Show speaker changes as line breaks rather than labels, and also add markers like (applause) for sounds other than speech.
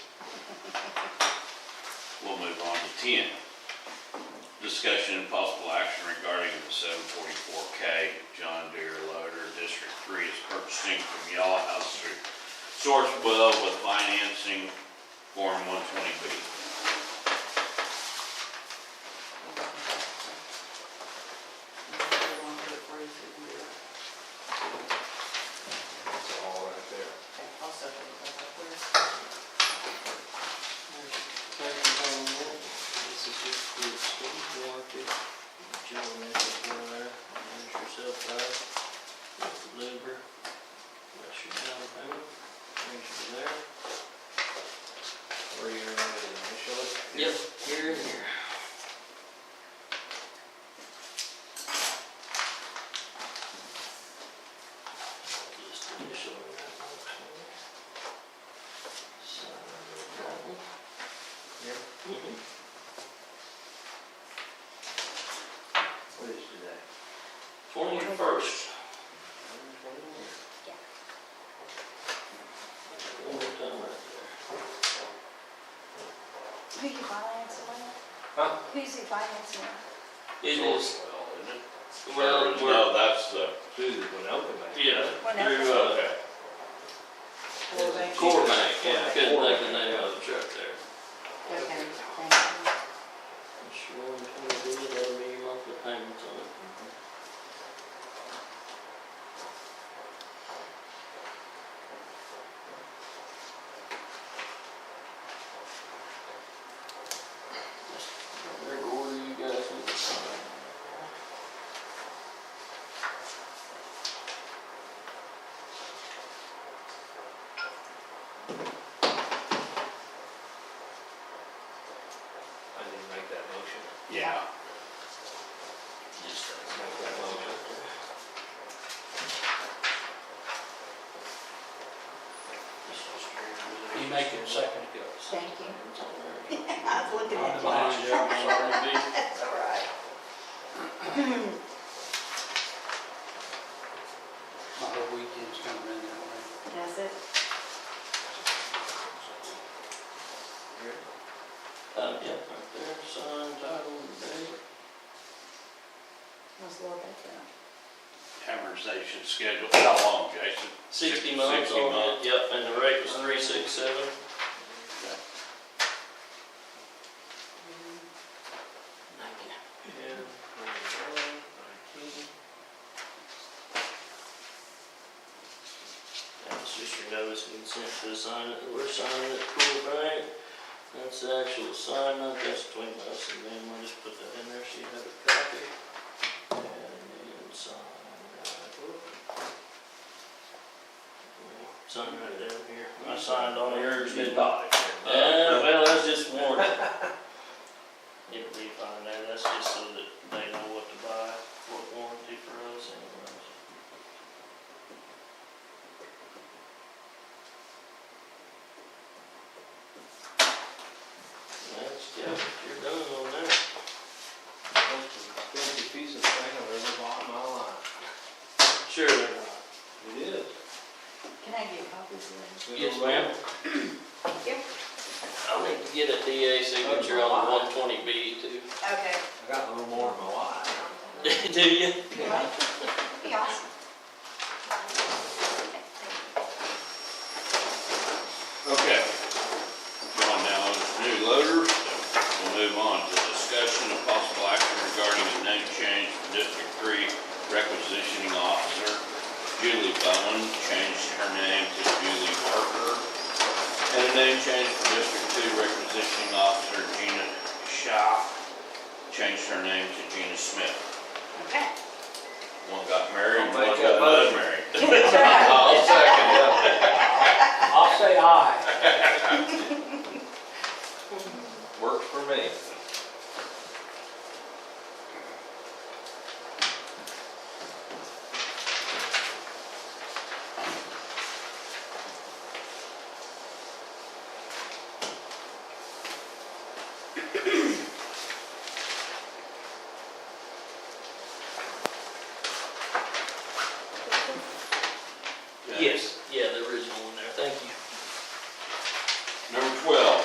ten, discussion and possible action regarding the seven forty-four K John Deere loader. District three is purchasing from Y'all House through Source Well with financing form one twenty B.
It's all right there.
This is just the state warranty, Joe mentioned down there, manage yourself uh, out, louver, that's your down payment, brings you there.
Where you ready to initial it?
Yep, here and here. Just initial that one, okay. Sign the bottom.
Yep.
Mhm.
What is today?
Twenty-first.
One more time right there.
Who you financing with?
Huh?
Who's he financing with?
It is,
Well, isn't it?
well, we're,
No, that's the,
Through the Winoka Bank.
yeah, through, uh,
okay.
Core Bank, yeah, I couldn't think of the name of the truck there.
Okay, thank you.
It's one twenty, that'll be your monthly payments on it. Whatever order you guys need to sign.
I didn't make that motion.
Yeah.
Just that.
Make that motion.
You make it second.
Thank you.
It's on there.
I was looking at you.
Behind you, I'm sorry.
Uh,
That's all right.
My whole weekend's coming in that way.
That's it.
Uh, yeah, right there, sign, title, and date.
Let's look at that.
Amortization schedule, how long, Jason?
Sixty months
60
on
months.
it, yep, and the rate was three six seven. Yeah. That's just your notice and consent to sign it, we're signing it, cool, right? That's the actual sign, not that's between us and them, we'll just put that in there, so you have a copy. And then sign right up. Sign right down here, I signed on yours, didn't I? Yeah, Uh, well, that's just one. It'll be fine there, that's just so that they know what to buy, what warranty for us anyways. That's, yeah, you're done on there.
Filthy piece of thing I've ever bought in my life.
Sure they're not.
It is.
Can I get copies of
Good
Yes,
old
ma'am.
that? Yep.
I'll need to get a DA signature on the one twenty B too.
Okay.
I got a little more in my life.
(laughs) Do you?
Be awesome.
Okay. Going now to the new loader. We'll move on to discussion of possible action regarding the name change from District Three requisitioning officer. Julie Bowen changed her name to Julie Barker. And a name change from District Two requisitioning officer Gina Shaw changed her name to Gina Smith.
Okay.
One got married,
I'll
one
make
got
that motion.
unmarried.
That's all right.
I'll Oh, second that.
I'll say aye.
(laughs) Works for me.